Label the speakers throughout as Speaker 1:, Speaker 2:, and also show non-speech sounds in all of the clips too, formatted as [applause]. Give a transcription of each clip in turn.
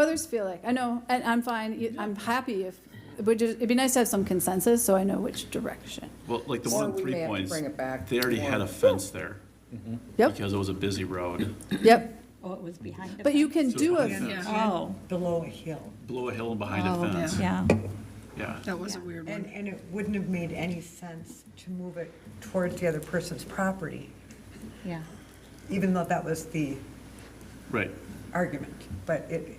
Speaker 1: Others feel like, I know, and I'm fine, I'm happy if, but just, it'd be nice to have some consensus, so I know which
Speaker 2: [clears throat]
Speaker 1: direction.
Speaker 3: Well, like the
Speaker 2: Or
Speaker 3: one on
Speaker 2: we may
Speaker 3: Three
Speaker 2: have to
Speaker 3: Points,
Speaker 2: bring it back
Speaker 3: they already had a fence there
Speaker 1: Yep,
Speaker 3: because it was a busy road.
Speaker 1: yep,
Speaker 4: Oh, it was behind the.
Speaker 1: but you can
Speaker 3: So
Speaker 1: do
Speaker 3: behind
Speaker 1: a,
Speaker 3: the fence,
Speaker 4: Oh,
Speaker 5: below a hill.
Speaker 3: Below a hill and behind a
Speaker 6: Oh,
Speaker 3: fence,
Speaker 4: yeah.
Speaker 3: yeah.
Speaker 6: That was a weird
Speaker 5: And,
Speaker 6: one.
Speaker 5: and it wouldn't have made any sense to move it towards the other person's property,
Speaker 4: Yeah.
Speaker 5: even though that was the
Speaker 3: Right,
Speaker 5: argument. But it,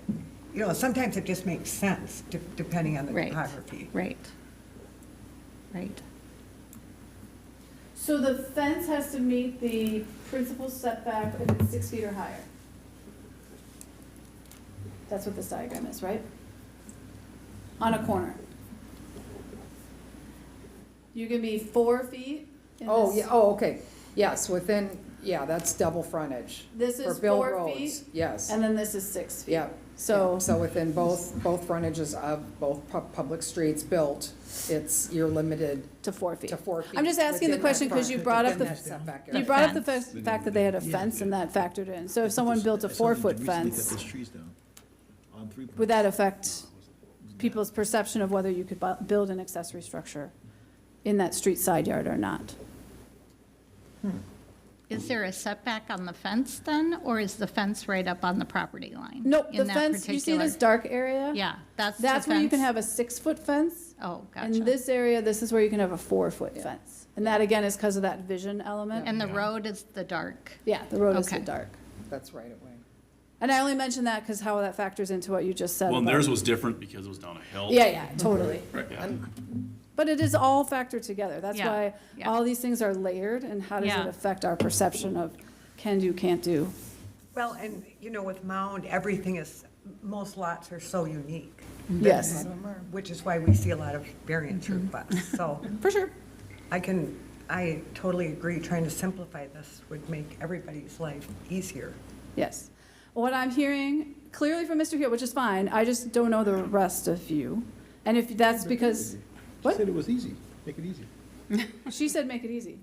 Speaker 5: you know, sometimes it just makes sense, de- depending on the
Speaker 4: Right.
Speaker 5: topography.
Speaker 4: Right. Right.
Speaker 1: so the fence has to meet the principal setback if it's six feet or higher. That's what this diagram is, right? On a corner. You can be four feet in
Speaker 2: Oh,
Speaker 1: this-
Speaker 2: yeah, oh, okay, yes, within, yeah, that's double frontage.
Speaker 1: This
Speaker 2: For
Speaker 1: is
Speaker 2: Bill
Speaker 1: four
Speaker 2: Roads,
Speaker 1: feet,
Speaker 2: Yes,
Speaker 1: And then this is six feet.
Speaker 2: yeah.
Speaker 1: So-
Speaker 2: yeah. So within both, both frontages of both pu- public streets built, it's, you're limited
Speaker 1: To four feet.
Speaker 2: to four feet.
Speaker 1: I'm just asking the
Speaker 2: within that
Speaker 1: question because
Speaker 2: front-
Speaker 1: you brought up
Speaker 2: within
Speaker 1: the,
Speaker 2: that setback
Speaker 1: you
Speaker 2: area.
Speaker 1: brought up the
Speaker 4: fence.
Speaker 1: fa- fact that they had a fence and that factored in. So if someone built a four-foot fence, would that affect people's perception of whether you could bu- build an accessory structure in that street side yard or not?
Speaker 7: Is there a setback on the fence then, or is the fence right up on the property line?
Speaker 1: No, the
Speaker 7: in that
Speaker 1: fence, you see
Speaker 7: particular-
Speaker 1: this dark area?
Speaker 7: Yeah, that's the
Speaker 1: That's where you can
Speaker 7: fence?
Speaker 1: have a six-foot fence.
Speaker 7: Oh,
Speaker 1: And
Speaker 7: gotcha.
Speaker 1: this area, this is where you can have a four-foot fence. And that, again, is because of that vision element.
Speaker 7: And the road is the dark.
Speaker 1: Yeah, the road is the
Speaker 7: Okay.
Speaker 1: dark.
Speaker 2: That's right away.
Speaker 1: And I only mention that because how that factors into what you just said.
Speaker 3: well, and
Speaker 1: about-
Speaker 3: theirs was different because it was down a hill.
Speaker 1: Yeah, yeah, totally.
Speaker 3: Right, yeah.
Speaker 1: But it is all factored together. That's
Speaker 7: Yeah,
Speaker 1: why
Speaker 7: yeah.
Speaker 1: all these things are layered and how does it
Speaker 7: Yeah.
Speaker 1: affect our perception of can do, can't do?
Speaker 5: Well, and, you know, with Mound, everything is, most lots are so unique,
Speaker 1: Yes,
Speaker 5: which is why we see a lot of variance requests. So
Speaker 1: for sure.
Speaker 5: I can, I totally agree, trying to simplify this would make everybody's life easier.
Speaker 1: Yes. What I'm hearing clearly from Mr. Hill, which is fine, I just don't know the rest of you. And if that's because, what?
Speaker 8: She said it was easy, make it easy.
Speaker 1: She said make it easy.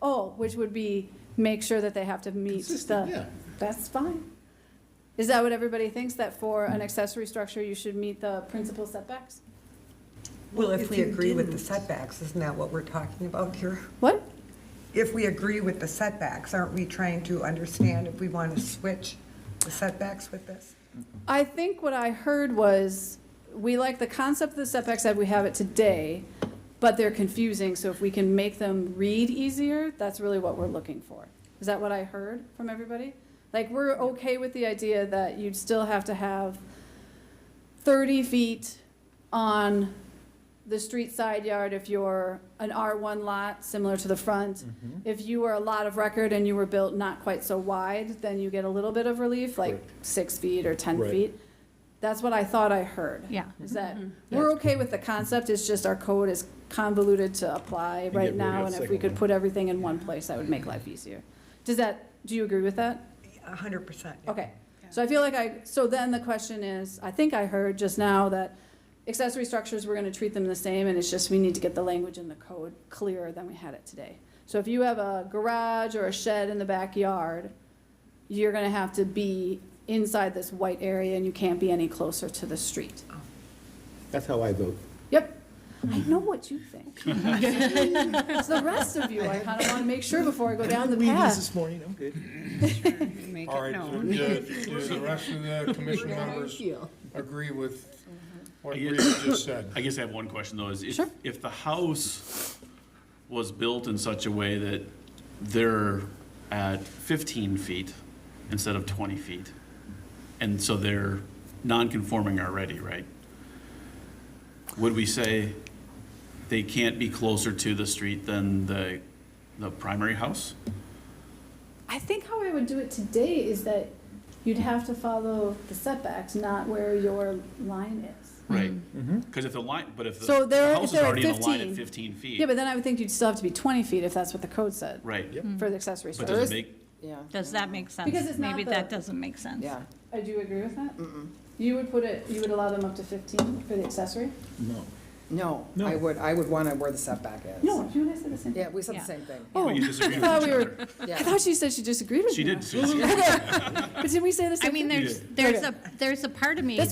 Speaker 1: Oh, which would be make sure that they have to meet
Speaker 8: Consistent,
Speaker 1: the,
Speaker 8: yeah.
Speaker 1: that's fine. Is that what everybody thinks, that for an accessory structure, you should meet the principal setbacks?
Speaker 5: Well, if we agree with the setbacks, isn't that what we're talking about here?
Speaker 1: What?
Speaker 5: If we agree with the setbacks, aren't we trying to understand if we want to switch the setbacks with this?
Speaker 1: I think what I heard was, we like the concept of the setbacks that we have it today, but they're confusing, so if we can make them read easier, that's really what we're looking for. Is that what I heard from everybody? Like, we're okay with the idea that you'd still have to have thirty feet on the street side yard if you're an R1 lot, similar to the front. If you are a lot of record and you were built not quite so wide, then you get a little bit of relief, like six feet or 10
Speaker 8: Right.
Speaker 1: feet. That's what I thought I heard.
Speaker 7: Yeah.
Speaker 1: Is that, we're okay with the concept, it's just our code is convoluted to apply
Speaker 8: get rid
Speaker 1: right
Speaker 8: of
Speaker 1: now.
Speaker 8: that
Speaker 1: And if we
Speaker 8: second
Speaker 1: could
Speaker 8: one.
Speaker 1: put everything in one place, that would make life easier. Does that, do you agree with that?
Speaker 5: A hundred percent.
Speaker 1: Okay, so I feel like I, so then the question is, I think I heard just now that accessory structures, we're gonna treat them the same, and it's just we need to get the language in the code clearer than we had it today. So if you have a garage or a shed in the backyard, you're gonna have to be inside this white area, and you can't be any closer to the street.
Speaker 8: That's how I vote.
Speaker 1: Yep, I know what you think. It's the rest of you, I kinda wanna make sure before I go down the
Speaker 8: We did this
Speaker 1: path.
Speaker 8: this morning, I'm good.
Speaker 6: Make
Speaker 9: All
Speaker 6: it
Speaker 9: right, so
Speaker 6: known. [laughs]
Speaker 9: do do the rest of the commission members agree with what Rita just said?
Speaker 3: I guess I have one question though, is if,
Speaker 1: Sure.
Speaker 3: if the house was built in such a way that they're at fifteen feet instead of twenty feet, and so they're non-conforming already, right? Would we say they can't be closer to the street than the, the primary house?
Speaker 1: I think how I would do it today is that you'd have to follow the setbacks, not where your line is.
Speaker 3: Right. Because if the line, but if the
Speaker 1: Mm-hmm. So
Speaker 3: the
Speaker 1: they're- if
Speaker 3: house is
Speaker 1: they're at
Speaker 3: already in the line at
Speaker 1: 15.
Speaker 3: fifteen
Speaker 1: Yeah,
Speaker 3: feet,
Speaker 1: but then I would think you'd still have to be twenty feet if that's what the code said
Speaker 3: right,
Speaker 1: for the accessory
Speaker 3: but
Speaker 1: structure.
Speaker 3: does it make,
Speaker 2: Yeah,
Speaker 7: Does that make sense?
Speaker 1: Because it's not
Speaker 7: Maybe
Speaker 1: the-
Speaker 7: that doesn't make sense.
Speaker 2: yeah.
Speaker 1: I do agree with that. You would put it, you would allow them up to fifteen for the accessory?
Speaker 8: No.
Speaker 2: No,
Speaker 8: No.
Speaker 2: I would, I would want to where the setback is.
Speaker 1: No, you and I said the same.
Speaker 2: Yeah, we said the
Speaker 7: Yeah.
Speaker 1: [laughs]
Speaker 2: same thing.
Speaker 1: Oh,
Speaker 3: but you disagree
Speaker 1: I
Speaker 3: with
Speaker 1: thought
Speaker 3: each
Speaker 1: we were,
Speaker 3: other?
Speaker 1: I
Speaker 2: Yeah.
Speaker 1: thought she said she [laughs] disagreed with me.
Speaker 3: She did, Susie.
Speaker 1: Okay, but didn't we say the same
Speaker 7: I
Speaker 1: thing?
Speaker 7: mean, there's, there's a, there's a part of me
Speaker 1: That's